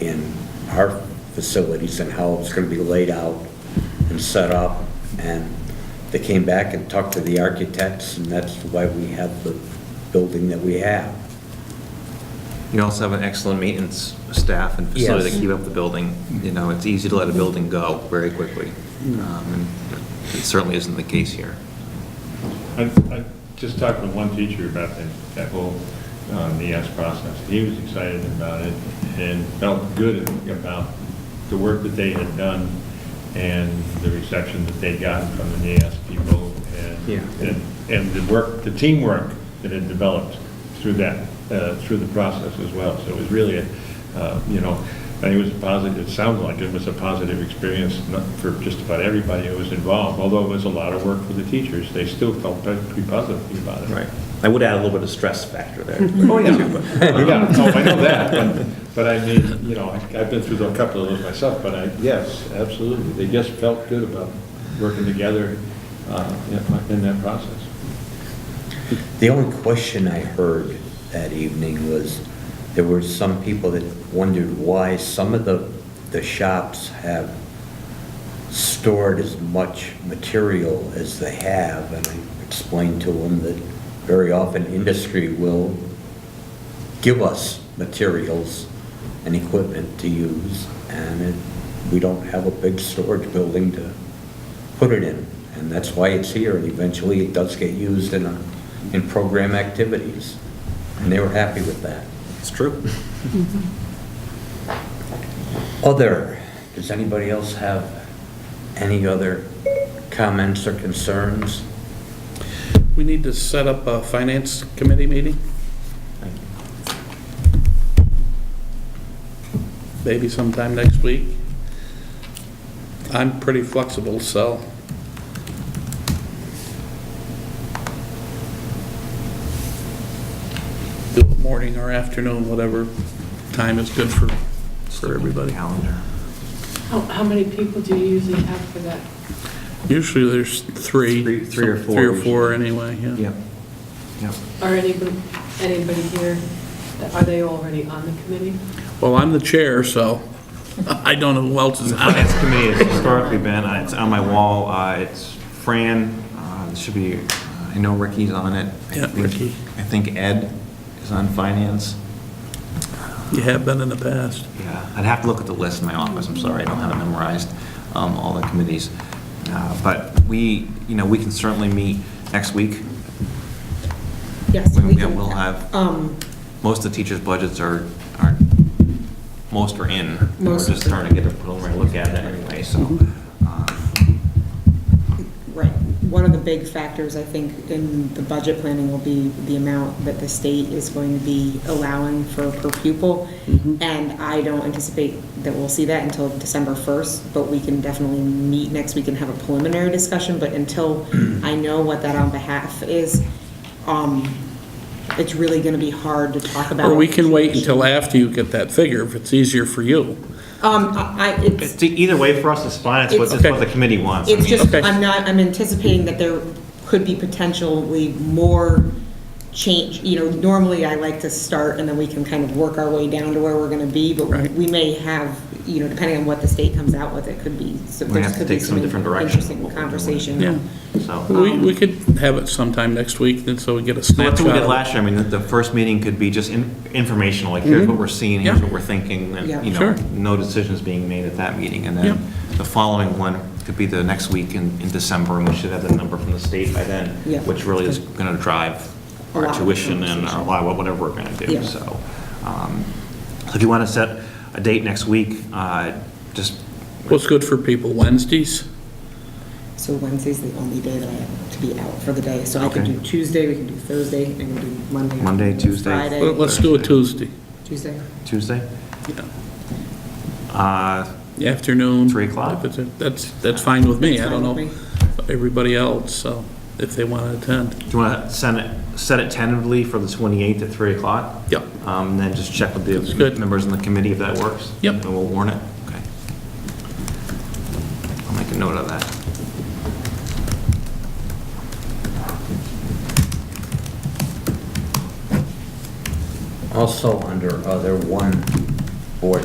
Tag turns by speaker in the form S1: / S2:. S1: in our facilities and how it's going to be laid out and set up. And they came back and talked to the architects, and that's why we have the building that we have.
S2: You also have an excellent maintenance staff and facility that
S1: Yes.
S2: keep up the building. You know, it's easy to let a building go very quickly. Um, and It certainly isn't the case here.
S3: I, I just talked with one teacher about that, that whole uh, NEAS process. He was excited about it and felt good about the work that they had done and the reception that they got from the NEAS people and,
S1: Yeah.
S3: and, and the work, the teamwork that had developed through that, uh, through the process as well. So it was really, a, uh, you know, and it was a positive, it sounded like it was a positive experience not- for just about everybody who was involved, although it was a lot of work for the teachers, they still felt pretty pretty positive about it.
S2: I would add a little bit of stress factor there.
S3: Oh, yeah. Yeah, no, I know that, but, but I mean, you know, I- I've been through a couple of those myself, but I, yes, absolutely. They just felt good about working together uh, in- in that process.
S1: The only question I heard that evening was, there were some people that wondered why some of the, the shops have stored as much material as they have, and I explained to them that very often industry will give us materials and equipment to use, and it, we don't have a big storage building to put it in. And that's why it's here, and eventually it does get used in, a- in program activities. And they were happy with that.
S2: It's true.
S1: Other, does anybody else have any other comments or concerns?
S4: We need to set up a finance committee meeting? Maybe sometime next week? I'm pretty flexible, so do it morning or afternoon, whatever time is good for, for everybody.
S2: Calendar.
S5: How, how many people do you usually have for that?
S4: Usually there's three.
S2: Three- three or four
S4: Three or
S2: usually.
S4: four anyway, yeah.
S2: Yep. Yep.
S5: Are anybody, anybody here, are they already on the committee?
S4: Well, I'm the chair, so I don't know who else is on it.
S2: Finance committee has historically been, uh, it's on my wall, uh, it's Fran, uh, it should be, uh, I know Ricky's on it. I
S4: Yeah,
S2: think-
S4: Ricky.
S2: I think Ed is on finance.
S4: You have been in the past.
S2: Yeah, I'd have to look at the list in my office, I'm sorry, I don't have it memorized, um, all the committees. Uh, But we, you know, we can certainly meet next week.
S6: Yes,
S2: When
S6: we
S2: we
S6: can.
S2: will have-
S6: Um,
S2: Most of the teachers' budgets are, are, most are in. We're
S6: Most of
S2: just
S6: them. Mm-hmm.
S2: starting to get a preliminary look at it anyway, so. um,
S6: right, one of the big factors, I think, in the budget planning will be the amount that the state is going to be allowing for per pupil.
S4: Mm-hmm.
S6: And I don't anticipate that we'll see that until December first, but we can definitely meet next week and have a preliminary discussion, but until I know what that on behalf is, um, it's really gonna be hard to talk about.
S4: Or we can wait until after you get that figure, if it's easier for you.
S6: Um, I, I- it's.
S2: It's, either way, for us, it's fine, it's what, it's
S4: It's-
S2: what the committee wants. I
S6: It's
S2: mean,
S6: just,
S4: Okay.
S6: I'm not, I'm anticipating that there could be potentially more change, you know, normally I like to start and then we can kind of work our way down to where we're gonna be, but
S4: Right.
S6: we may have, you know, depending on what the state comes out with, it could be, so
S2: We have
S6: there
S2: to
S6: could be
S2: take some
S6: some
S2: different direction.
S6: interesting conversation. Um,
S4: Yeah.
S2: So,
S4: We, we could have it sometime next week, then so we get a
S2: so that's
S4: snapshot.
S2: what we did last year, I mean, the, the first meeting could be just in- informational, like, here's what we're seeing, here's
S4: Mm-hmm. Yeah.
S2: what we're thinking,
S6: Yeah.
S2: and, you know,
S4: Sure.
S2: no decisions being made at that meeting, and
S4: Yeah.
S2: then the following one could be the next week in, in December, and we should have the number from the state by then,
S6: Yeah.
S2: which really is gonna drive
S6: A lot
S2: our
S6: of
S2: tuition and our,
S6: conversation.
S2: li- whatever we're gonna do,
S6: Yeah.
S2: so. um, So if you wanna set a date next week, uh, just,
S4: What's good for people, Wednesdays?
S6: So Wednesday's the only day that I have to be out for the day, so I can
S2: Okay.
S6: do Tuesday, we can do Thursday, I can do Monday.
S2: Monday, Tuesday.
S4: Well,
S6: Friday,
S4: Let's do a Tuesday,
S6: Tuesday.
S2: Tuesday,
S4: yeah.
S2: uh,
S4: The afternoon.
S2: Three o'clock?
S4: If it's- That's, that's fine with me, I
S6: That's
S4: don't
S6: fine
S4: know
S6: with
S4: everybody else, so, if they want to attend.
S2: Do you want to send it, set it tentatively for the 28th at 3 o'clock?
S4: Yep.
S2: Um, And then just check with
S4: That's
S2: the
S4: good.
S2: members in the committee if that works?
S4: Yep.
S2: And we'll warn it? Okay. I'll make a note of that.
S1: Also, under other one board